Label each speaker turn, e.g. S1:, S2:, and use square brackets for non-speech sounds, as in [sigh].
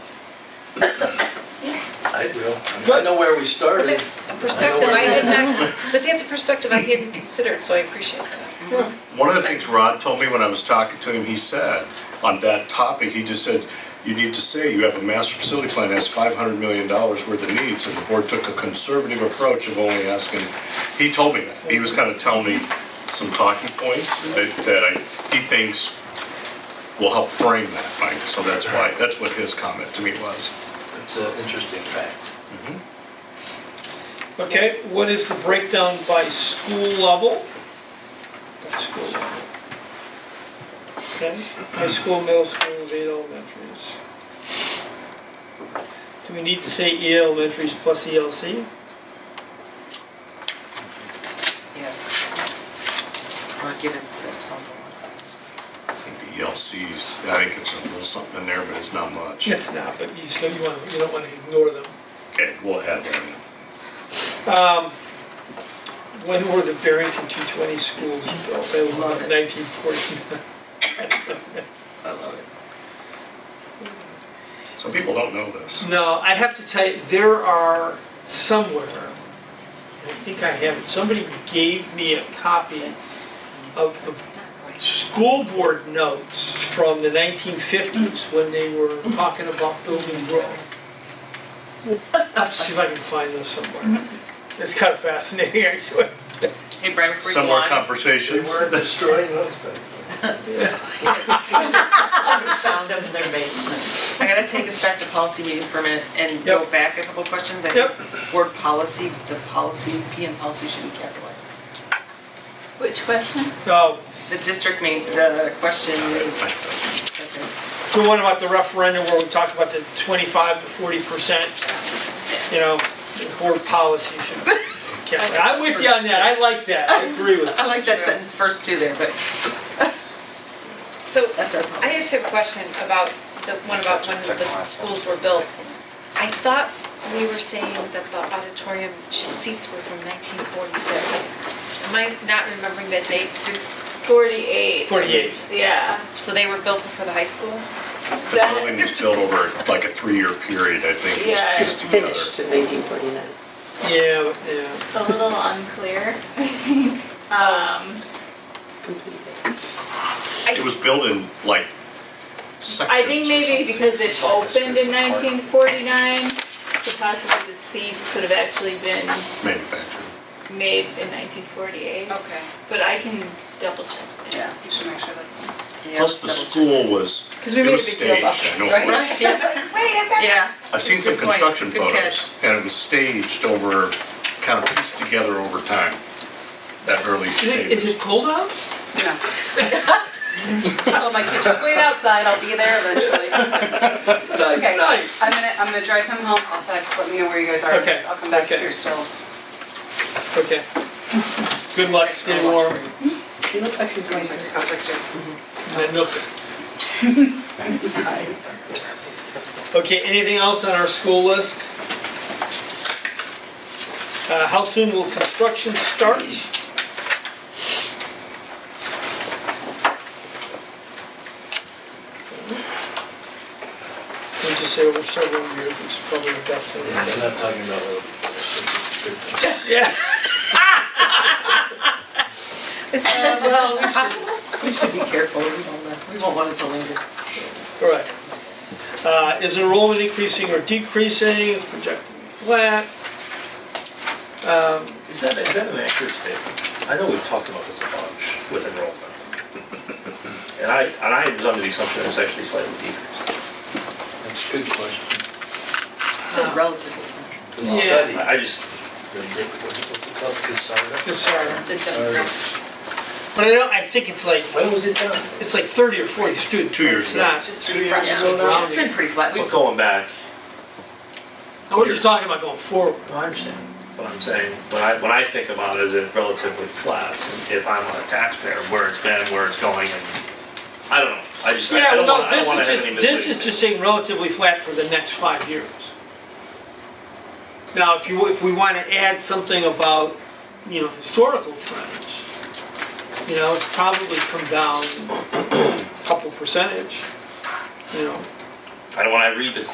S1: I will. I
S2: Good.
S1: know where we
S3: But
S1: started.
S3: that's a perspective I had not, but that's a perspective I hadn't considered, so I appreciate that.
S4: One of the things Rod told me when I was talking to him, he said, on that topic, he just said, you need to say you have a master facility plan that has five hundred million dollars worth of needs, and the board took a conservative approach of only asking, he told me that, he was kind of telling me some talking points that, that I, he thinks will help frame that, Mike, so that's why, that's what his comment to me was.
S1: That's an interesting fact.
S2: Okay, what is the breakdown by school level? That's School level. Okay, high school, middle school, eight elementaries. Do we need to say eight elementaries plus E ELC?
S5: Yes. Or get it set somewhere.
S4: I think the ELCs, I think it's a little something in there, but it's not much.
S2: It's not, but you just, you want, you don't wanna ignore them.
S4: Okay, we'll add that in.
S2: Um, When were the Barrington two twenty schools built? That was about nineteen forty-nine.
S1: I love it.
S4: Some people don't know this.
S2: No, I have to tell you, there are somewhere, I think I have it, somebody gave me a copy of the school board notes from the nineteen fifties when they were talking about building Grove. I'll see if I can find those somewhere. It's kind of fascinating, actually.
S5: Hey, Brian, before you go
S4: Similar
S5: on,
S1: They
S4: conversations.
S1: weren't destroying
S2: [laughs]
S1: those back
S5: somebody found them in their basement. I gotta take us back to policy meeting for a minute and go
S2: Yep.
S5: back a couple questions. I
S2: Yep.
S5: think Word policy, the policy, PM policy should be capitalized.
S6: Which question?
S2: So,
S5: The district main, the question is. okay.
S2: the one about the referendum where we talked about the twenty-five to forty percent, you know, board policy should. Yeah, I'm with you on that, I like that, I agree with
S5: I
S2: you.
S5: like that sentence first too there, but
S3: So
S5: that's our problem.
S3: I just have a question about the one about when the schools were built. I thought we were saying that the auditorium seats were from 1946. Am I not remembering that date?
S6: Forty-eight.
S2: Forty-eight.
S6: Yeah.
S3: So they were built before the high school?
S4: The building was built over like a three-year period, I think. was
S6: Yeah,
S4: pieced
S6: it's
S4: together.
S7: in 1949.
S2: Yeah, yeah.
S6: It's a little unclear, [laughs] I think. Um,
S4: It was built in like sections.
S6: I think
S4: or
S6: maybe
S4: something.
S6: because it opened in nineteen forty-nine, so possibly the seats could have actually been
S4: Manufactured.
S6: made in nineteen forty-eight.
S3: Okay.
S6: But I can double check that.
S5: Oh. Yeah.
S6: You should make sure that's.
S5: Yeah,
S4: Plus the
S5: double check.
S4: school was,
S5: Because we
S4: it
S5: made
S4: was
S5: a big deal about
S4: staged, I know. it was.
S5: Right?
S3: [laughs]
S5: Yeah.
S4: I've seen some
S5: Good point.
S4: construction
S5: Good
S4: photos and it was staged over, kind of pieced together over time. That early
S2: Is it,
S4: stage.
S2: is it cold out?
S8: [laughs] told my kid, just wait outside, I'll be there eventually. Okay,
S2: nice.
S8: I'm gonna, I'm gonna drive him home, I'll text, let me know where you guys are,
S2: Okay,
S8: I'll come back if
S2: okay.
S8: you're still.
S2: Okay. Good luck, stay warm,
S7: He looks like he's
S8: Let me text you, I'll text you.
S2: and milk it. Okay, anything else on our school list? Uh, how soon will construction start? We just say over several years, it's probably the best thing to
S1: I'm
S2: say.
S1: not talking about what it's a good thing.
S2: Yeah.
S5: Is that as well, we should, we should be careful, we don't, want- we won't want it to linger.
S2: Correct. Uh, Is enrollment increasing or decreasing, Is projected to be flat? Um,
S1: Is that, is that an accurate statement? I know we've talked about this a bunch with
S2: [laughs]
S1: enrollment. And I, and I was under the assumption it was actually slightly decreased. That's a good question.
S5: Still Relatively.
S1: The
S2: Yeah.
S1: study. I just. What's it called, Cassara?
S2: just sorry.
S5: The demographic.
S2: But I don't, I think it's like,
S1: When was it done?
S2: it's like 30 or 40 students.
S4: Two years
S2: It's
S4: ago.
S2: not-
S5: Just
S1: Two years
S5: refresh.
S1: ago now?
S5: It's been pretty flat.
S9: But
S5: We've-
S9: going back,
S2: Now, We're just talking about going forward.
S9: I understand what I'm saying, when I, when I think about it, is it relatively flat, if I'm a taxpayer, where it's been, where it's going, and, I don't know, I just, I
S2: Yeah,
S9: don't
S2: well, no,
S9: wanna, I don't
S2: this
S9: wanna
S2: is
S9: have any
S2: just, this is just saying relatively flat for the next five years. Now, if you, if we want to add something about, you know, historical trends, you know, it's probably come down a couple percentage, you know.
S9: I don't wanna read the